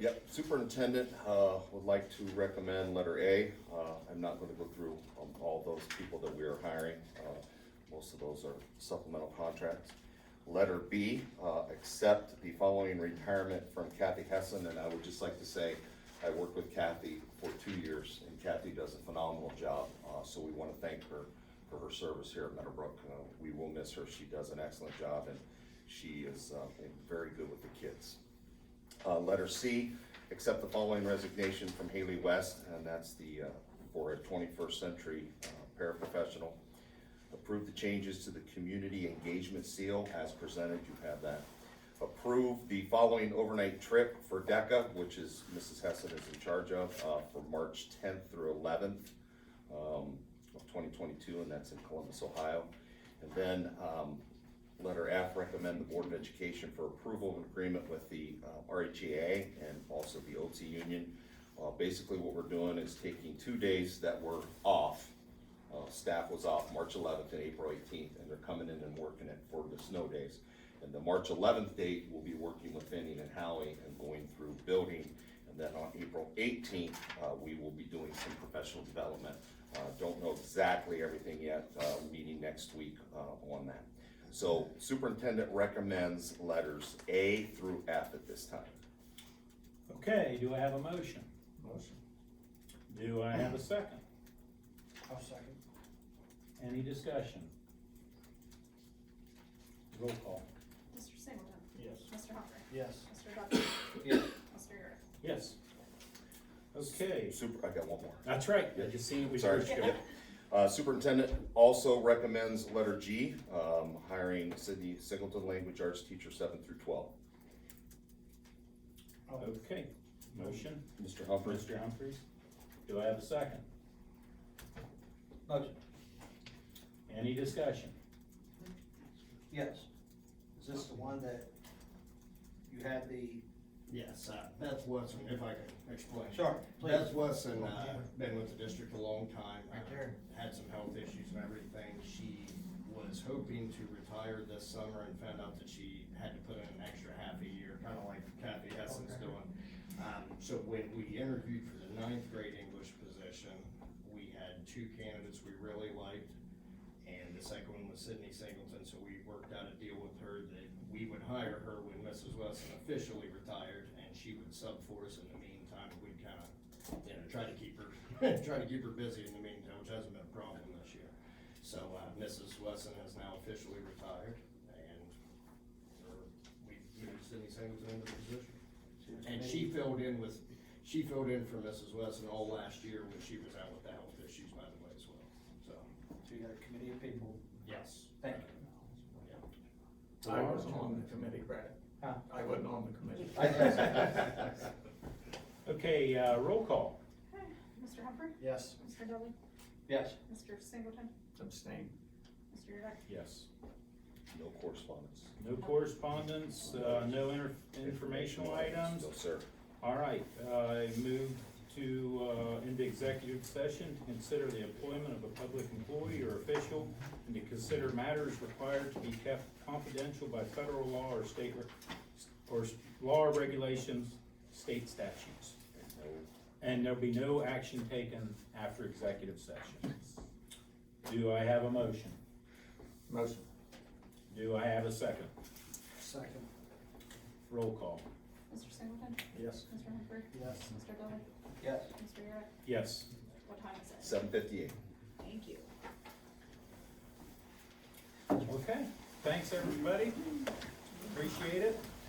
Yep, superintendent uh, would like to recommend letter A. Uh, I'm not going to go through um, all those people that we are hiring. Uh, Most of those are supplemental contracts. Letter B, uh, accept the following retirement from Kathy Hessen, and I would just like to say, I worked with Kathy for two years, and Kathy does a phenomenal job, Uh, so we want to thank her for her service here at Meadowbrook. Uh, We will miss her, she does an excellent job, and she is uh, very good with the kids. Uh, letter C, accept the following resignation from Haley West, and that's the, uh, for a twenty-first century uh, paraprofessional. Approve the changes to the community engagement seal as presented, you have that. Approve the following overnight trip for DECA, which is, Mrs. Hessen is in charge of, uh, for March tenth through eleventh um, of twenty twenty-two, and that's in Columbus, Ohio. And then, um, letter F, recommend the Board of Education for approval of an agreement with the uh, RHEA and also the OT union. Uh, basically what we're doing is taking two days that were off. Uh, staff was off March eleventh and April eighteenth, and they're coming in and working it for the snow days. And the March eleventh date, we'll be working with Finning and Howie and going through building. And then on April eighteenth, uh, we will be doing some professional development. Uh, don't know exactly everything yet, uh, meeting next week, uh, on that. So superintendent recommends letters A through F at this time. Okay, do I have a motion? Motion. Do I have a second? I'll second. Any discussion? Roll call. Mr. Singleton. Yes. Mr. Hopper. Yes. Mr. Duffy. Yes. Mr. Yerick. Yes. Okay, Super, I got one more. that's right, I just seen it, we Sorry. searched it. Uh, superintendent also recommends letter G, um, hiring Sydney Singleton, language arts teacher seven through twelve. Okay, motion, Mr. Humphries? Mr. Humphries. Do I have a second? Motion. Any discussion? Yes. Is this the one that you had the? Yes, uh, Beth Woodson, if I can explain. Sure, please. Beth Woodson, uh, been with the district a long time. Right uh, there. Had some health issues and everything. She was hoping to retire this summer and found out that she had to put in an extra half a year, kinda like Kathy Hessen's Okay. doing. Um, so when we interviewed for the ninth grade English position, we had two candidates we really liked. And the second one was Sydney Singleton, so we worked out a deal with her that we would hire her when Mrs. Wesson officially retired, and she would sub for us in the meantime, we'd kind of, you know, try to keep her, try to keep her busy in the meantime, which hasn't been a problem this year. So, uh, Mrs. Wesson has now officially retired, and her- we moved Sydney Singleton into the position. And she filled in with, she filled in for Mrs. Wesson all last year when she was out with the health issues, by the way, as well, so, So you got a committee of people. yes. Thank you. I wasn't on the committee, Brad. Huh? I wasn't on the committee. Okay, uh, roll call. Mr. Hopper. Yes. Mr. Duffy. Yes. Mr. Singleton. Abstain. Mr. Yerick. Yes. No correspondence. No correspondence, uh, no inter- informational items. No, sir. All right, I move to, uh, into executive session to consider the employment of a public employee or official and to consider matters required to be kept confidential by federal law or state, re- or s- law or regulations, state statutes. And there'll be no action taken after executive session. Do I have a motion? Motion. Do I have a second? Second. Roll call. Mr. Singleton. Yes. Mr. Humphrey. Yes. Mr. Duffy. Yes. Mr. Yerick. Yes. What time is it? Seven fifty-eight. Thank you. Okay, thanks, everybody. Appreciate it.